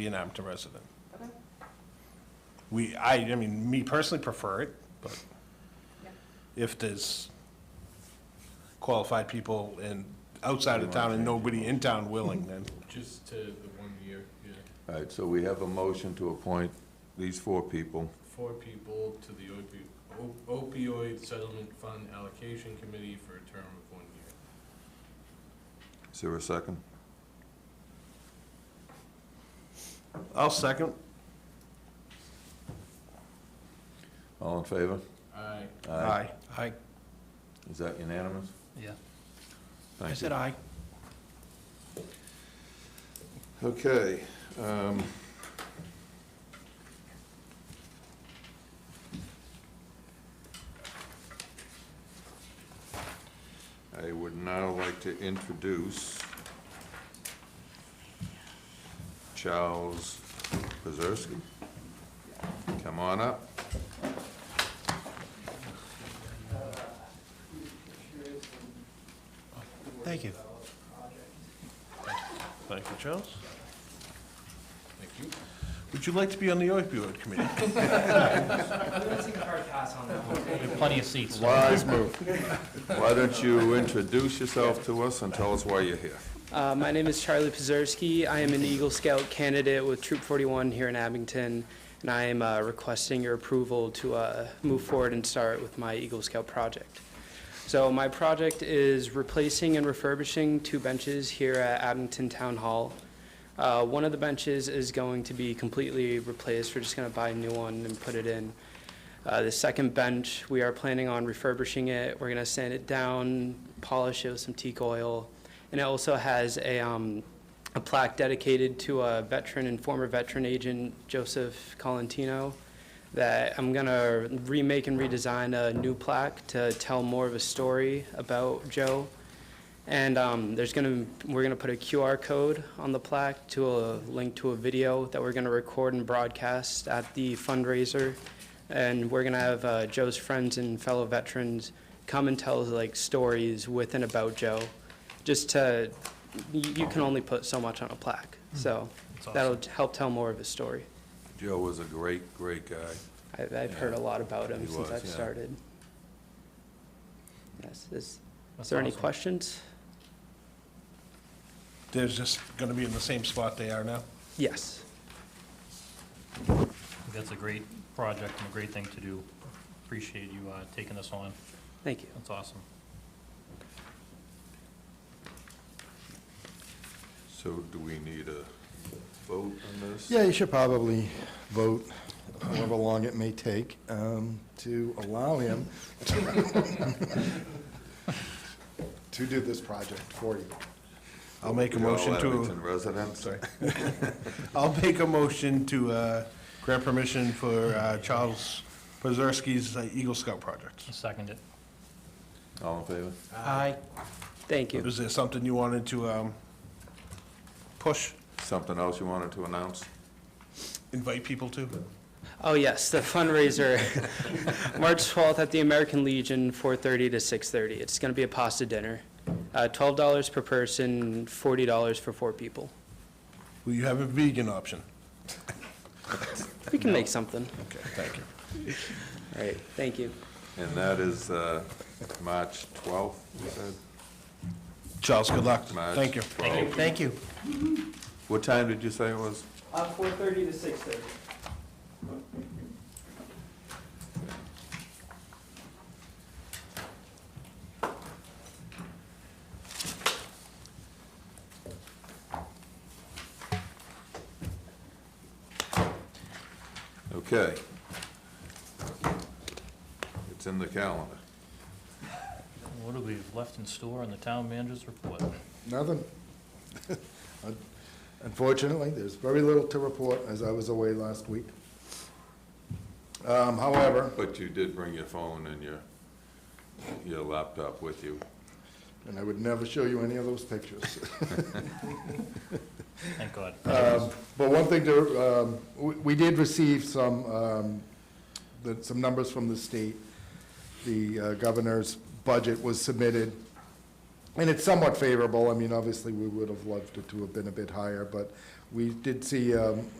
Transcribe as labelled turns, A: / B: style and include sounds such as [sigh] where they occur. A: be an Abington resident. We, I, I mean, me personally prefer it, but if there's qualified people in, outside of town and nobody in town willing, then.
B: Just to the one year, yeah.
C: All right, so we have a motion to appoint these four people.
B: Four people to the opi- o- opioid settlement fund allocation committee for a term of one year.
C: Is there a second?
A: I'll second.
C: All in favor?
B: Aye.
A: Aye.
C: Is that unanimous?
D: Yeah, I
C: Thank you.
D: said aye.
C: Okay. um, I would now like to introduce Charles Pazerski. Come on up.
D: Thank you.
A: Thank you, Charles.
B: Thank you.
A: Would you like to be on the opioid committee? [laughs]
E: I'm gonna take a hard pass on that one.
D: There are plenty of seats.
C: Wise move. Why don't you introduce yourself to us and tell us why you're here?
E: Uh, my name is Charlie Pizerski. I am an Eagle Scout candidate with Troop 41 here in Abington, and I am uh, requesting your approval to uh, move forward and start with my Eagle Scout project. So my project is replacing and refurbishing two benches here at Abington Town Hall. Uh, One of the benches is going to be completely replaced. We're just going to buy a new one and put it in. Uh, The second bench, we are planning on refurbishing it. We're going to sand it down, polish it with some teak oil, and it also has a, um, a plaque dedicated to a veteran and former veteran agent, Joseph Colantino, that I'm gonna remake and redesign a new plaque to tell more of a story about Joe. And, um, there's gonna, we're gonna put a QR code on the plaque to a link to a video that we're gonna record and broadcast at the fundraiser. And we're gonna have, uh, Joe's friends and fellow veterans come and tell, like, stories with and about Joe just to, you, you can only put so much on a plaque,
C: Hmm.
E: so that'll help tell more of his story.
C: Joe was a great, great guy.
E: I, I've heard a lot about him
C: He
E: since
C: was,
E: I've
C: yeah.
E: started. Yes, is, is there any questions?
A: They're just gonna be in the same spot they are now?
E: Yes,
D: That's a great project and a great thing to do. Appreciate you uh, taking this on.
E: thank you.
D: That's awesome.
C: So do we need a vote on this?
F: Yeah, you should probably vote, however long it may take, um, to allow him to do this project for you.
A: I'll make a
C: You're all
A: motion
C: Abington
A: to,
C: residents?
A: sorry. I'll make a motion to, uh, grant permission for, uh, Charles Pazerski's uh, Eagle Scout project.
D: I Second it.
C: All in favor?
D: Aye.
E: Thank you.
A: Is there something you wanted to um, push,
C: Something else you wanted to announce?
A: invite people to?
E: Oh, yes, the fundraiser, [laughs] March 12th at the American Legion, 4:30 to 6:30. It's gonna be a pasta dinner, uh, $12 per person, $40 for four people.
A: Will you have a vegan option?
E: We can make something.
A: Okay, thank you.
E: All right, thank you.
C: And that is uh, March 12th, you said?
A: Charles, good luck.
C: March
A: Thank you.
C: 12th.
D: Thank you.
C: What time did you say it was?
E: Uh, 4:30 to 6:30.
C: Okay. It's in the calendar.
D: What do we have left in store in the town manager's report?
F: Nothing. [laughs] Unfortunately, there's very little to report, as I was away last week. Um, However,
C: But you did bring your phone and your, your laptop with you.
F: and I would never show you any of those pictures. [laughs]
D: Thank God.
F: Um, But one thing to, um, we we did receive some, um, the- some numbers from the state. The uh, governor's budget was submitted, and it's somewhat favorable. I mean, obviously, we would have loved it to have been a bit higher, but We did see um,